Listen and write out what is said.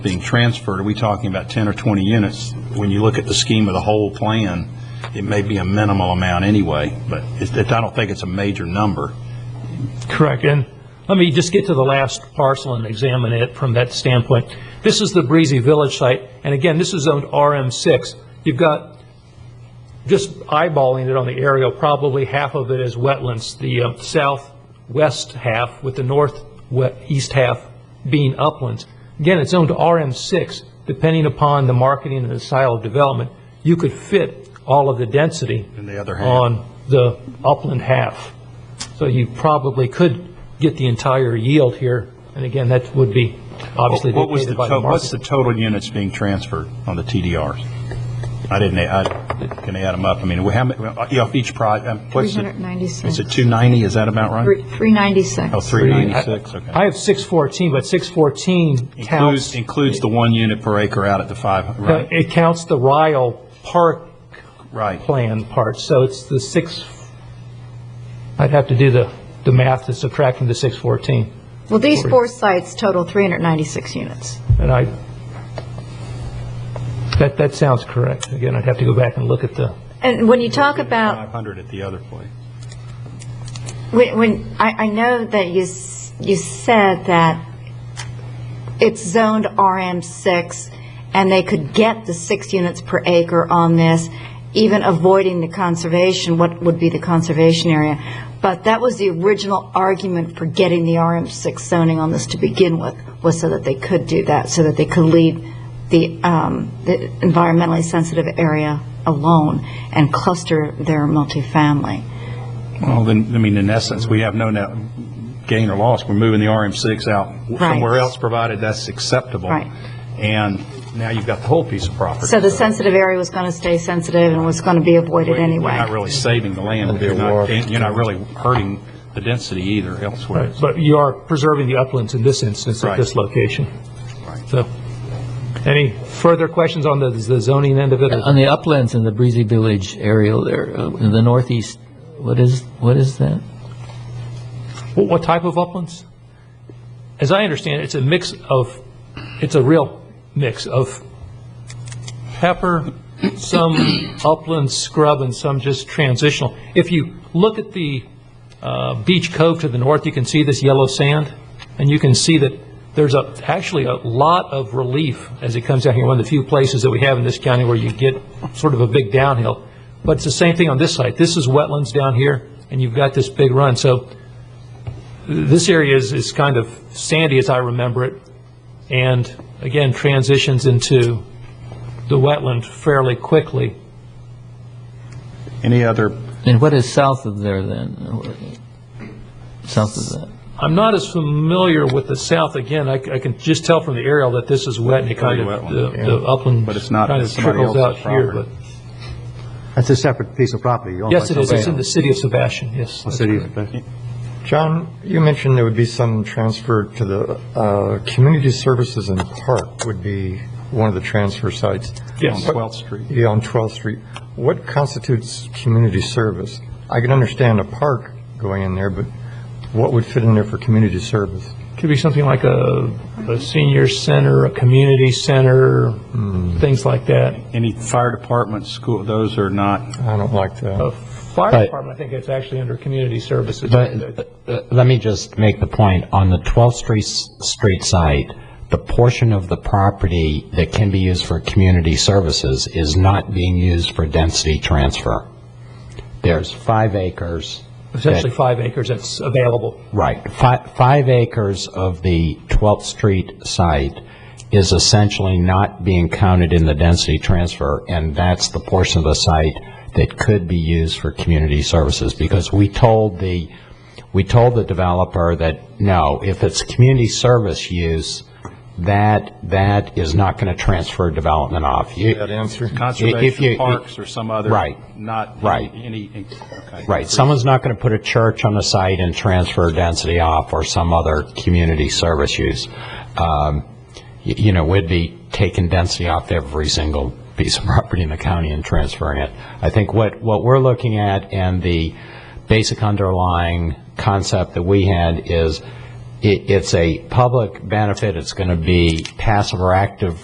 being transferred, are we talking about 10 or 20 units? When you look at the scheme of the whole plan, it may be a minimal amount anyway, but it's- it- I don't think it's a major number. Correct, and let me just get to the last parcel and examine it from that standpoint. This is the Breezy Village site, and again, this is zoned RM6. You've got, just eyeballing it on the aerial, probably half of it is wetlands, the uh, southwest half with the northeast half being uplands. Again, it's zoned RM6, depending upon the marketing and the style of development, you could fit all of the density And the other half. on the upland half. So you probably could get the entire yield here, and again, that would be obviously What was dictated the, by the to- what's the market. total units being transferred on the TDRs? I didn't, I, can I add them up? I mean, how many, off each project, what's it? 396. Is it 290, is that about right? Three- 396. Oh, 396, okay. I have 614, but 614 Includes, counts, includes the one unit per acre out at the five, uh, right? it counts the Ryle Park Right. plan part, so it's the six, I'd have to do the, the math to subtract from the 614, Well, these four sites total 396 units. and I, that, that sounds correct. Again, I'd have to go back and look at the, And when you talk about, 500 at the other place. when, when, I, I know that you, s- you said that it's zoned RM6, and they could get the six units per acre on this, even avoiding the conservation, what would be the conservation area. But that was the original argument for getting the RM6 zoning on this to begin with, was so that they could do that, so that they could leave the um, the environmentally sensitive area alone and cluster their multifamily. Well, then, I mean, in essence, we have no net gain or loss. We're moving the RM6 out somewhere else, provided that's acceptable. Right. And now you've got the whole piece of property. So the sensitive area was going to stay sensitive and was going to be avoided You're not anyway. really saving the land, but you're not, you're not really hurting the density either elsewhere. But you are preserving the uplands in this instance, at Right. this location. Right. So, any further questions on the the zoning end of it? On the uplands in the Breezy Village area there, uh, in the northeast, what is, what is that? What what type of uplands? As I understand it, it's a mix of, it's a real mix of pepper, some upland scrub, and some just transitional. If you look at the uh, beach cove to the north, you can see this yellow sand, and you can see that there's a, actually a lot of relief as it comes down here, one of the few places that we have in this county where you get sort of a big downhill. But it's the same thing on this site. This is wetlands down here, and you've got this big run. So this area is, is kind of sandy as I remember it, and again, transitions into the wetland fairly quickly. Any other, And what is south of there then? South of that? I'm not as familiar with the south, again, I, c- I can just tell from the aerial that this is wet, and it kind of, Pretty wetland, the- the upland But it's not- kind of it's somebody trickles out else's here, but, property. That's a separate piece of property. owned by yes, it is, it's in the somebody city of Sebastian, yes. else. The city. John, you mentioned there would be some transfer to the uh, community services and park would be one of the transfer sites. Yes. What- 12th Street. Yeah, on 12th Street. What constitutes community service? I can understand a park going in there, but what would fit in there for community service? Could be something like a, a senior center, a community center, Hmm. things like that. any fire department, school, those are not, I don't like A that. fire Right. department, I think it's actually under community services. But uh, let me just make the point, on the 12th Street, Street site, the portion of the property that can be used for community services is not being used for density transfer. There's five acres, essentially five acres that's available. right, fi- five acres of the 12th Street site is essentially not being counted in the density transfer, and that's the portion of the site that could be used for community services, because we told the, we told the developer that, no, if it's community service use, that, that is not going to transfer development off. You- That answer? you- conservation if- parks or some other. Right. Not. Right. Any, okay. Right, someone's not going to put a church on the site and transfer density off or some other community service use. Um, y- You know, we'd be taking density off every single piece of property in the county and transferring it. I think what, what we're looking at and the basic underlying concept that we had is it, it's a public benefit, it's going to be passive or active